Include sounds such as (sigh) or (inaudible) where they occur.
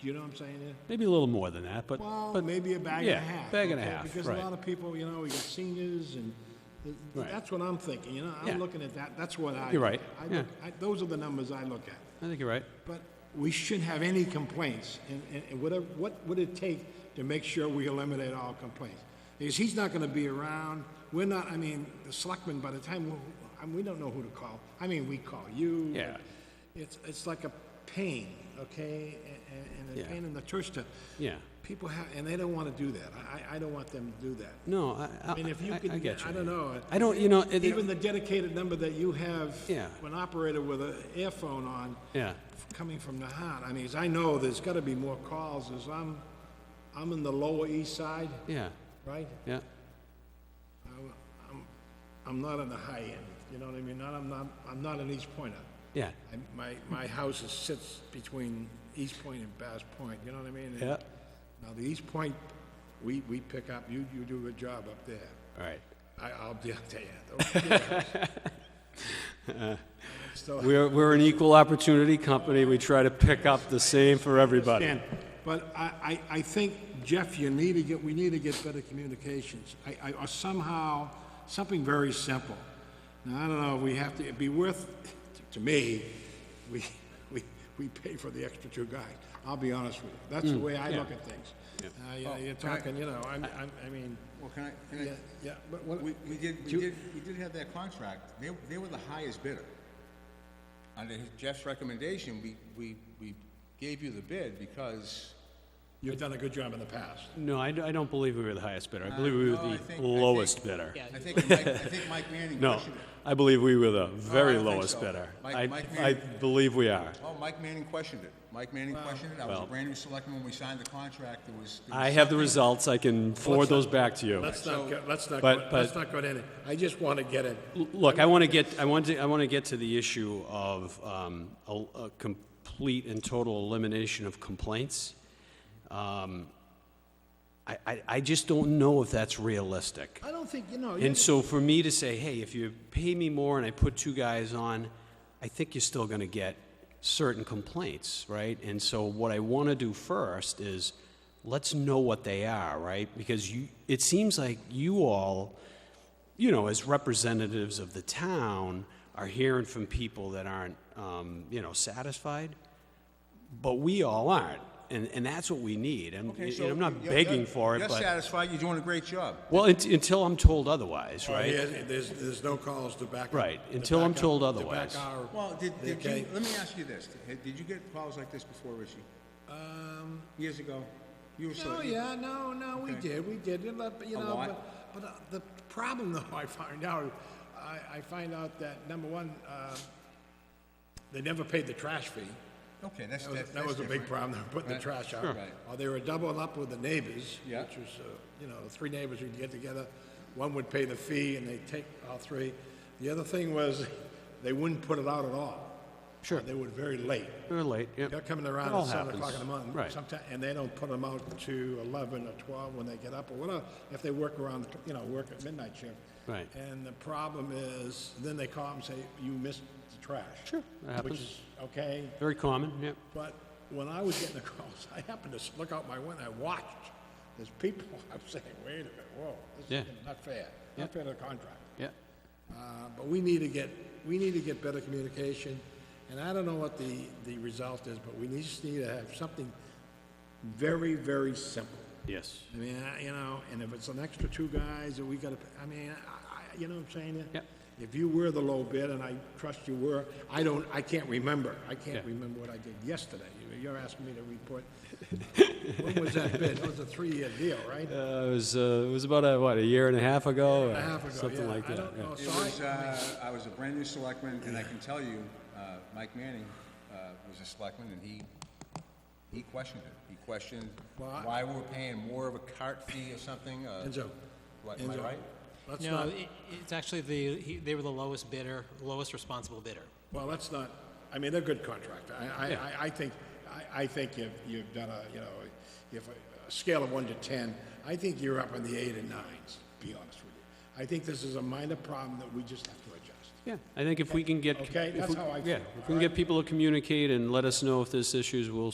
Do you know what I'm saying? Ed? Maybe a little more than that, but, Well, but maybe a bag yeah, and a half. bag and a okay, half, Because right. a lot of people, you know, we got seniors and th- th- Right. that's what I'm thinking. You know, Yeah. I'm looking at that. That's what I. You're look right, at. I yeah. look- I- Those are the numbers I look at. I think you're right. But we shouldn't have any complaints, and, and- and whatever, what would it take to make sure we eliminate all complaints? Because he's not gonna be around, we're not, I mean, the selectmen, by the time, we- I mean, we don't know who to call. I mean, we call you. and Yeah. It's, it's like a pain, okay, and, and a Yeah. pain in the church to. Yeah. People have, and they don't wanna do that, I, I, I don't want them to do that. No, I, I, I mean, if you I- could, I get you. I don't know. I don't, you know, it- Even the dedicated number that you have. Yeah. An operator with an earphone on. Yeah. Coming from the heart, I mean, as I know, there's gotta be more calls, as I'm, I'm in the lower east side, yeah, right? yeah, I'm not on the high end, you know what I mean, not, I'm not, I'm not an East Pointer. yeah, I, my, my house is, sits between East Point and Bass Point, you know what I mean? yeah. Now, the East Point, we, we pick up, you, you do a good job up there. All right. I, I'll be, I'll tell you. don't kid us. So, We're, we're an equal opportunity company. We try to pick up the same for everybody. Dan, but I, I, I think, Jeff, you need to get, we need to get better communications. I, I, or somehow, something very simple. Now, I don't know, we have to, it'd be worth, to me, we, we, we pay for the extra two guys. I'll be honest with you. That's Mm. the way I look at things. Uh, you know, you're talking, you know, I'm, I'm, I mean, Well, can I, yeah, can yeah, but I, what? we, we did, we you- did, we did have that contract, they, they were the highest bidder. Under his- Jeff's recommendation, we, we, we gave you the bid because. You've done a good job in the past. No, I, I don't believe we were the highest bidder. I believe we Uh, no, oh, I were think- the I think- lowest bidder. I think, Mike- I think Mike (laughs) Manning No, questioned it. I believe we were the very Oh, don't think lowest so. bidder. Mike- I, Mike I Mann- believe we are. Oh, Mike Manning questioned it. Mike Manning questioned it. I was a Well- brand new selectman when we signed the contract. There was. there was I have the something- results. I can forward those back to you. Let's not, go- let's not, But- go- let's but- not go to any, I just want to get it, Look, I want to get, I want to, I want to get to the issue of um, a a complete and total elimination of complaints. Um, I, I, I just don't know if that's realistic. I don't think, you know, you- And so for me to say, hey, if you pay me more and I put two guys on, I think you're still going to get certain complaints, right? And so what I want to do first is let's know what they are, right? Because you, it seems like you all, you know, as representatives of the town, are hearing from people that aren't, um, you know, satisfied, but we all aren't. And, and that's what we need. And, Okay, and so I'm not you're- begging you're- for it, You're but. satisfied. You're doing a great job. Well, unt- until I'm told otherwise, right? Yeah, there's, there's no calls to back. up- Right, to until I'm back up- told to otherwise. back our- Well, did, did Okay. you, let me ask you this. Did did you get calls like this before, Richie? Um. Years ago? You were No, select- oh, yeah, no, no, we did, we did, it, but, you A know, lot? but, but uh, the problem (laughs) though, I find out, I, I find out that, number one, uh, they never paid the trash fee. Okay, that's, That was, that's. that was a that's big different. problem, they were putting the trash out. Right. Or they were doubling up with the neighbors, which Yeah. was, uh, you know, three neighbors would get together, one would pay the fee and they'd take all three. The other thing was, they wouldn't put it out at all. Sure. They were very late. They're late, yep. They're coming It around all at seven o'clock in the happens. morning. Right. sometime, And they don't put them out to eleven or twelve when they get up or whatever, if they work around, the you know, work at midnight shift. Right. And the problem is, then they call and say, you missed the trash. Sure, that Which happens. is, okay, Very common, yep. but when I was getting the (laughs) calls, I happened to s- look out my window, I watched, there's people, (laughs) I'm saying, wait a minute, whoa, Yeah. this is not fair, Yeah. not fair to the contract. Yeah. Uh, But we need to get, we need to get better communication, and I don't know what the, the result is, but we need- just need to have something very, very simple. Yes. I mean, I- you know, and if it's an extra two guys, or we gotta, I mean, I, I- you know what I'm saying? Yep. If you were the low bid, and I trust you were, I don't, I can't remember, I can't Yeah. remember what I did yesterday. You- You're asking me to report, when was that bid? That was a three-year deal, right? Uh, it was, uh, it was about, a, what, a year and a half A ago? or half ago, Something yeah. like I that, don't yeah. know, It so I- was, uh, I was a brand new selectman, and I can tell you, uh, Mike Manning, uh, was a selectman, and he, he questioned it. He questioned Well, I- why we were paying more of a cart fee or something, uh. Enzo. What, am I Enzo, right? Let's No, not, it- it's actually the, he- they were the lowest bidder, lowest responsible bidder. well, let's not, I mean, they're good contractor. I, I, I- I think, I, I think you've, you've done a, you know, if, a- a scale of one to ten, I think you're up in the eight and nines, to be honest with you. I think this is a minor problem that we just have to adjust. Yeah, I think if we can get. Okay, if that's we- how I Yeah, feel, if we can get people to communicate and let us know if there's issues, we'll